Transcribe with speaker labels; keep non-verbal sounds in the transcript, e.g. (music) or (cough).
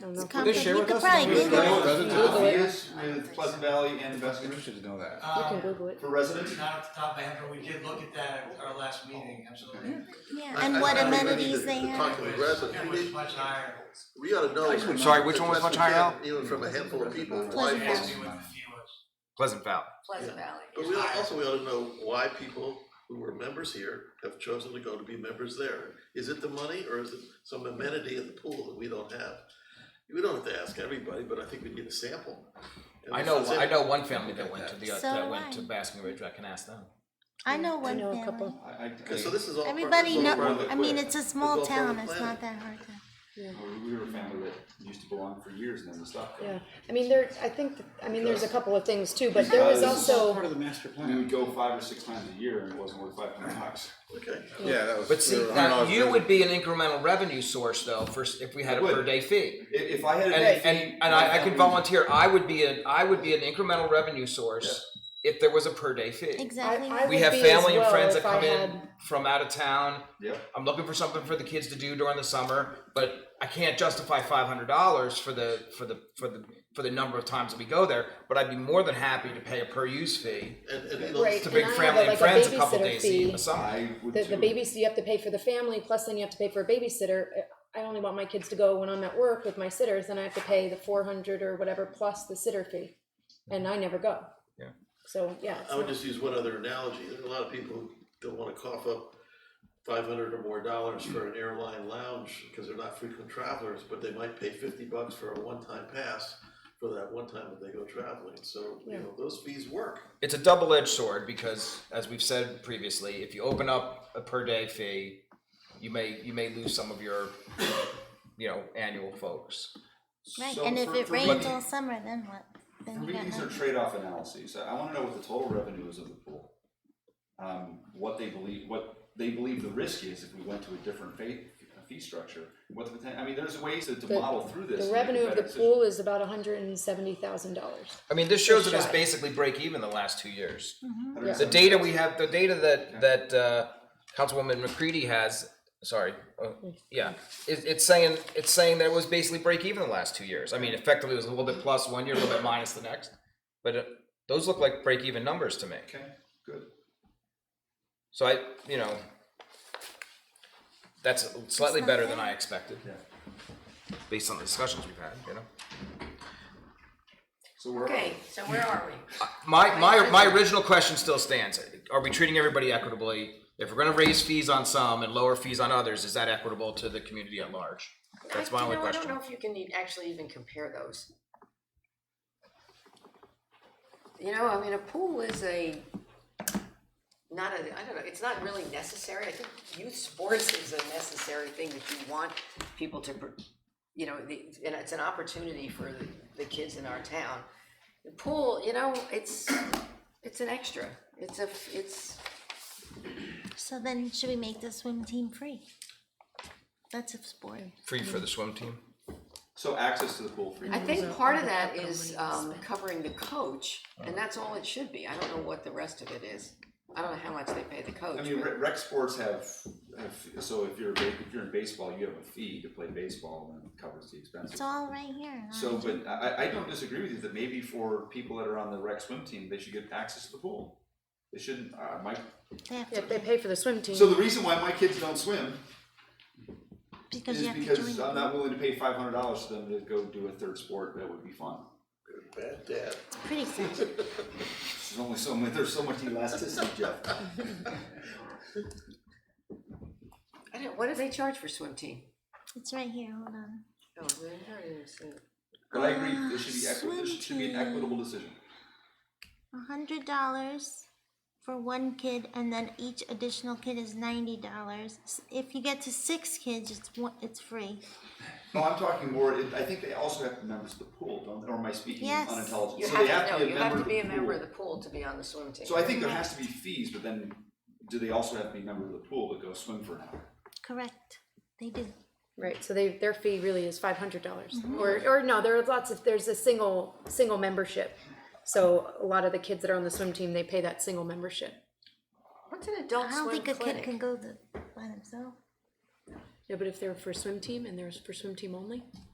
Speaker 1: don't know.
Speaker 2: It's
Speaker 1: if-
Speaker 2: com- They share with us
Speaker 3: Probably
Speaker 2: Google
Speaker 3: Google
Speaker 2: it.
Speaker 3: it.
Speaker 4: Does it
Speaker 5: Uh,
Speaker 4: do it?
Speaker 5: years with Pleasant Valley and
Speaker 4: I'm
Speaker 5: Investment
Speaker 4: interested to know that.
Speaker 1: You can
Speaker 2: Um,
Speaker 1: Google it.
Speaker 5: for residents.
Speaker 2: Not off the top of my head, but we did look at that at our last meeting, absolutely.
Speaker 3: Yeah,
Speaker 6: I-
Speaker 3: and
Speaker 6: I
Speaker 3: what
Speaker 6: found it
Speaker 3: amenities
Speaker 6: to-
Speaker 3: they
Speaker 6: to
Speaker 3: have.
Speaker 6: talk to the residents.
Speaker 2: It
Speaker 6: We
Speaker 2: was
Speaker 6: need-
Speaker 2: much higher.
Speaker 6: We ought to know.
Speaker 4: I'm sorry, which
Speaker 6: as
Speaker 4: one was
Speaker 6: best
Speaker 4: much
Speaker 6: we
Speaker 4: higher
Speaker 6: can,
Speaker 4: now?
Speaker 6: Even from a handful of people. why
Speaker 3: Pleasant
Speaker 2: Pleasant
Speaker 3: Valley.
Speaker 2: asked
Speaker 6: people-
Speaker 2: me what the fee was.
Speaker 7: Pleasant Valley.
Speaker 5: Pleasant
Speaker 8: Valley.
Speaker 6: But we ought- also, we ought to know why people who were members here have chosen to go to be members there. Is it the money or is it some amenity in the pool that we don't have? We don't have to ask everybody, but I think we need a sample. And
Speaker 7: I know.
Speaker 6: that's it.
Speaker 7: I know one family that went to the
Speaker 3: So
Speaker 7: that
Speaker 3: do
Speaker 7: went to
Speaker 3: I.
Speaker 7: Basking Ridge. I can ask them.
Speaker 3: I know
Speaker 1: I
Speaker 3: one
Speaker 1: know a
Speaker 3: family.
Speaker 1: couple.
Speaker 5: I, I,
Speaker 6: Okay, so this is all. part-
Speaker 3: Everybody
Speaker 6: this is all part of
Speaker 3: know,
Speaker 6: the
Speaker 3: I mean,
Speaker 6: plan.
Speaker 3: it's a small
Speaker 6: all part of
Speaker 3: town,
Speaker 6: the
Speaker 3: it's
Speaker 6: planning.
Speaker 3: not that hard to.
Speaker 5: we were a family that used to belong for years and then we stopped.
Speaker 1: Yeah, I mean, there, I think, th- I mean, there's a couple of things too, but there was
Speaker 5: Because-
Speaker 1: also,
Speaker 2: Part of the master
Speaker 5: We would go five or six times a year and it wasn't worth five hundred bucks.
Speaker 6: Okay.
Speaker 4: Yeah, that was.
Speaker 7: But see, now you would be an incremental revenue source though. First, if we had a
Speaker 5: Would.
Speaker 7: per day fee,
Speaker 5: If, if I had.
Speaker 7: and
Speaker 5: a
Speaker 7: and, and I, I could volunteer. I would be an I would be an incremental revenue source if there was a per day fee.
Speaker 3: Exactly.
Speaker 1: I- I
Speaker 7: We
Speaker 1: would
Speaker 7: have
Speaker 1: be
Speaker 7: family
Speaker 1: as
Speaker 7: and
Speaker 1: well
Speaker 7: friends that
Speaker 1: if I
Speaker 7: come in
Speaker 1: had-
Speaker 7: from out of town.
Speaker 5: Yep.
Speaker 7: I'm looking for something for the kids to do during the summer, but I can't justify five hundred dollars for the for the for the for the number of times that we go there. But I'd be more than happy to pay a per use fee
Speaker 6: And, and you
Speaker 1: Right.
Speaker 6: know,
Speaker 7: to
Speaker 1: And
Speaker 7: bring
Speaker 1: I have,
Speaker 7: family and
Speaker 1: like, a
Speaker 7: friends a couple
Speaker 1: babysitter
Speaker 7: days in
Speaker 1: fee.
Speaker 7: the summer.
Speaker 5: I would
Speaker 1: the, the
Speaker 5: too.
Speaker 1: babysit, you have to pay for the family, plus then you have to pay for a babysitter. I only want my kids to go when I'm at work with my sitters, then I have to pay the four hundred or whatever plus the sitter fee, and I never go.
Speaker 7: Yeah.
Speaker 1: So, yeah, it's
Speaker 6: I would
Speaker 1: not-
Speaker 6: just use one other analogy. There are a lot of people who don't wanna cough up five hundred or more dollars for an airline lounge, because they're not frequent travelers, but they might pay fifty bucks for a one-time pass for that one time that they go traveling, so, you
Speaker 1: Yeah.
Speaker 6: know, those fees work.
Speaker 7: It's a double edged sword because, as we've said previously, if you open up a per day fee, you may you may lose some of your you know annual folks.
Speaker 3: Right,
Speaker 5: So
Speaker 3: and if
Speaker 5: for-
Speaker 3: it
Speaker 5: for
Speaker 3: rains
Speaker 5: me-
Speaker 3: all summer, then what?
Speaker 5: For
Speaker 3: Then you
Speaker 5: me,
Speaker 3: got
Speaker 5: these are
Speaker 3: nothing.
Speaker 5: trade-off analyses. I, I wanna know what the total revenue is of the pool. Um, what they believe, what they believe the risk is if we went to a different fee, fee structure, what the potential, I mean, there's ways to, to
Speaker 1: The-
Speaker 5: model through this.
Speaker 1: the
Speaker 5: and make a
Speaker 1: revenue of
Speaker 5: better
Speaker 1: the
Speaker 5: decision.
Speaker 1: pool is about hundred and seventy thousand dollars.
Speaker 7: I mean, this shows that it's
Speaker 1: Shy.
Speaker 7: basically break even the last two years.
Speaker 1: Yeah.
Speaker 7: The data we have, the data that that uh, Councilwoman McCready has, sorry, uh, yeah, it, it's saying it's saying that it was basically break even the last two years. I mean, effectively, it was a little bit plus one year, a little bit minus the next, but uh, those look like break even numbers to me.
Speaker 5: Okay, good.
Speaker 7: So I, you know, that's slightly
Speaker 3: not
Speaker 7: better than
Speaker 3: bad.
Speaker 7: I expected, based on the discussions we've had. You know,
Speaker 5: So we're.
Speaker 8: Okay, so where are we?
Speaker 7: my my my original question still stands: Are we treating everybody equitably? If we're going to raise fees on some and lower fees on others, is that equitable to the community at large? That's my
Speaker 8: You
Speaker 7: only
Speaker 8: know, I
Speaker 7: question.
Speaker 8: don't know if you can e- actually even compare those. You know, I mean, a pool is a, not a, I don't know, it's not really necessary. I think youth sports is a necessary thing that you want people to, pr- you know, the, and it's an opportunity for the, the kids in our town. The pool, you know, it's, it's an extra. It's a, f- it's,
Speaker 3: So then should we make the swim team free? That's a sport.
Speaker 7: Free for the swim team.
Speaker 5: So access to the pool free.
Speaker 8: I think part of that is um covering the coach,
Speaker 3: Oh.
Speaker 8: and that's all it should be, I don't know what the rest of it is. I don't know how much they pay the coach,
Speaker 5: I mean,
Speaker 8: but
Speaker 5: rec, rec sports have, have, so if you're, a ba- if you're in baseball, you have a fee to play baseball and it covers the expenses.
Speaker 3: It's all right here.
Speaker 5: So, but I, I- I don't disagree with you that maybe for people that are on the rec swim team, they should get access to the pool. They shouldn't, uh, my,
Speaker 3: They have
Speaker 1: Yeah,
Speaker 3: to,
Speaker 1: they pay for the swim team.
Speaker 5: so the reason why my kids don't swim
Speaker 3: because
Speaker 5: is
Speaker 3: you have to join.
Speaker 5: because
Speaker 3: them.
Speaker 5: I'm not willing to pay five hundred dollars to them to go do a third sport that would be fun.
Speaker 6: Bad dad.
Speaker 3: Pretty sad.
Speaker 5: There's only so much, there's so
Speaker 3: (laughs)
Speaker 5: much elasticity, Jeff.
Speaker 8: I don't, what do they charge for swim team?
Speaker 3: It's right here, hold on.
Speaker 8: Oh, well, I don't even see it.
Speaker 5: But I agree, this should be equi,
Speaker 3: Ah, Swim
Speaker 5: this should be an
Speaker 3: team.
Speaker 5: equitable decision.
Speaker 3: A hundred dollars for one kid, and then each additional kid is ninety dollars. If you get to six kids, it's one, it's free.
Speaker 5: No, I'm talking more, it- I think they also have to be members of the pool, don't, or am I speaking
Speaker 3: Yes.
Speaker 5: unintelligent?
Speaker 8: You
Speaker 5: So they
Speaker 8: have to, no, you have
Speaker 5: member
Speaker 8: to
Speaker 5: of
Speaker 8: be a
Speaker 5: the
Speaker 8: member of
Speaker 5: pool.
Speaker 8: the pool to be on the swim team.
Speaker 5: So I think there has to be fees, but then do they also have to be a member of the pool to go swim for an hour?
Speaker 3: Correct. They do.
Speaker 1: Right, so they, their fee really is five hundred dollars, or, or no, there are lots of, there's a single, single membership. So a lot of the kids that are on the swim team, they pay that single membership.
Speaker 8: What's an adult
Speaker 3: I don't
Speaker 8: swim
Speaker 3: think a kid can
Speaker 8: clinic?
Speaker 3: go the, by themselves.
Speaker 1: Yeah, but if they're for swim team and there's for swim team only,